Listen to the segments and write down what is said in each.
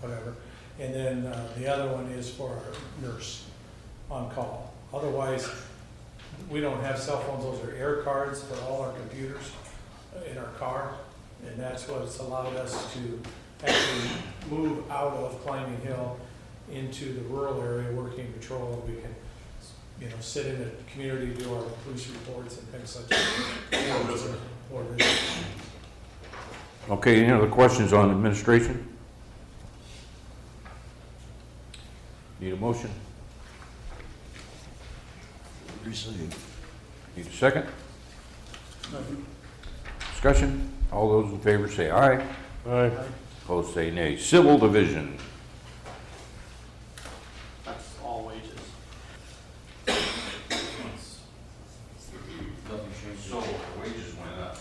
whatever. And then uh, the other one is for our nurse on call. Otherwise, we don't have cell phones, those are air cards for all our computers in our car. And that's what's allowed us to actually move out of climbing hill into the rural area, working patrol, and we can, you know, sit in the community, do our police reports and things such. Or visit. Or visit. Okay, any other questions on administration? Need a motion? Received. Need a second? Discussion? All those in favor say aye. Aye. Opposed say nay. Civil Division, That's all wages. So wages went up.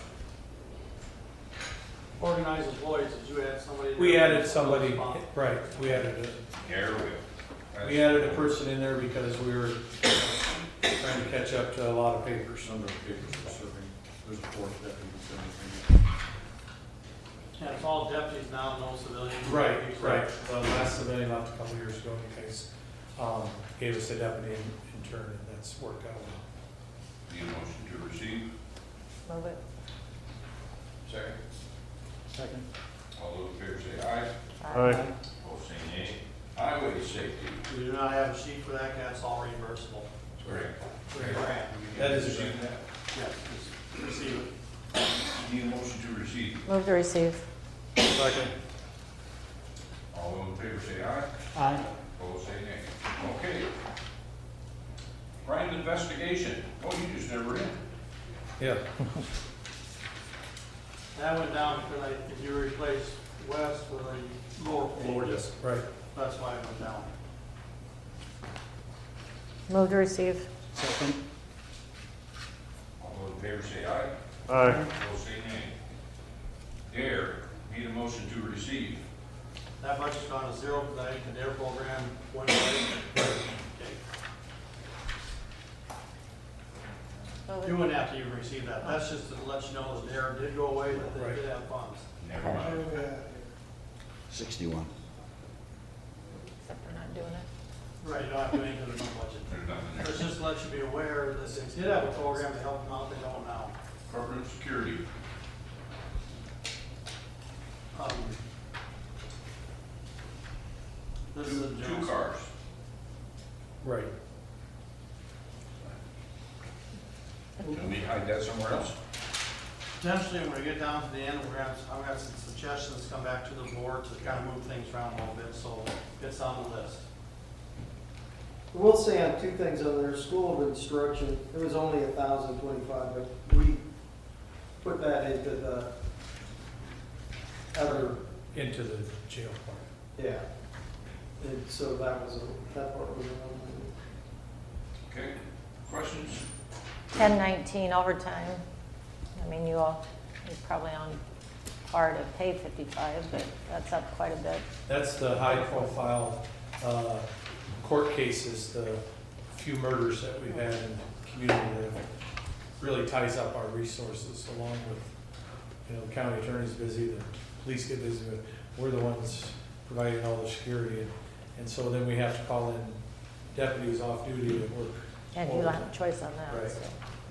Organized employees, did you add somebody? We added somebody, right, we added a, Air will. we added a person in there because we were trying to catch up to a lot of papers. Some of the papers are serving, there's a fourth deputy serving. And it's all deputies now, no civilians. Right, right, the last civilian left a couple years ago in case, um, gave us a deputy in in turn, and that's worked out well. Need a motion to receive? Move it. Second. Second. All those in favor say aye. Aye. Opposed say nay. Oh, Highway safety. We do not have a sheet for that, 'cause that's all reimbursable. Correct. For your grant. That is a grant. Yes, just receive it. Need a motion to receive? Move to receive. Second. All those in favor say aye. Aye. Opposed say nay. Okay. Crime investigation. Oh, you just never end. Yeah. That went down because I, if you replace West with a lower pay, yes. Right. that's why it went down. Move to receive. All those in favor say aye. Aye. Opposed say nay. Dare, need a motion to receive? That budget's gone to zero because I think the DARE program went away. Okay. Move You wouldn't have to even receive that. That's just to let you know that DARE did go away, that they did have funds. Never mind. Sixty-one. Except we're not doing it. Right, you don't have to do anything to the budget. There's nothing there. Let's just to let you be aware that they did have a program to help them out, they don't now. Corporate security. Um, This is a Two- Two general- cars. Right. Can we hide that somewhere else? Potentially, when we get down to the end, we're gonna, have- I'm gonna have some suggestions come back to the board to kind of move things around a little bit, so it's on the list. We'll say on two things on their school of instruction, it was only a thousand twenty-five, but we put that into the other, Into the jail part. yeah. And so that was, a- that part was. a- Okay, questions? Ten nineteen overtime. I mean, you all, you're probably on par to pay fifty-five, but that's up quite a bit. That's the high-profile uh, court cases, the few murders that we've had in the community that really ties up our resources along with, you know, the county attorney's busy, the police get busy, but we're the ones providing all the security. and- And so then we have to call in deputies off duty to work. And you don't have a choice on that, Right. so.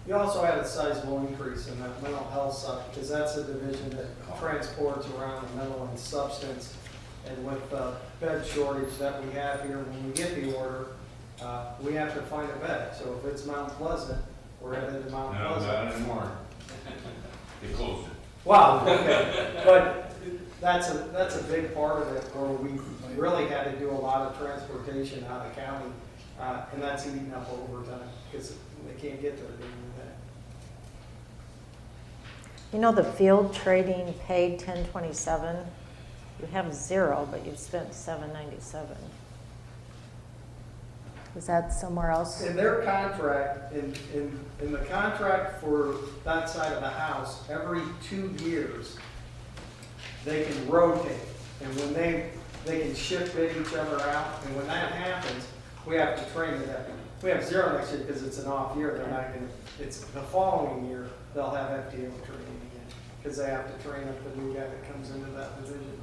You also had a sizable increase in that mental health side, because that's a division that transports around the mental and substance. And with the bed shortage that we have here, when we get the order, uh, we have to find a bed. So if it's Mount Pleasant, we're headed to Uh, No, Mount Pleasant. not anymore. They closed it. Wow, okay, but that's a, that's a big part of it, where we really had to do a lot of transportation out of county, uh, and that's eating up overtime, because they can't get there to do that. You know, the field trading paid ten twenty-seven. You have zero, but you've spent seven ninety-seven. Is that somewhere else? In their contract, in, in, in the contract for that side of the house, every two years, they can rotate, and when they, they can shift bid each other out, and when that happens, we have to train the deputy. We have zero next year because it's an off year, they're not gonna, it's the following year, they'll have FTO training again, because they have to train up the new guy that comes into that division.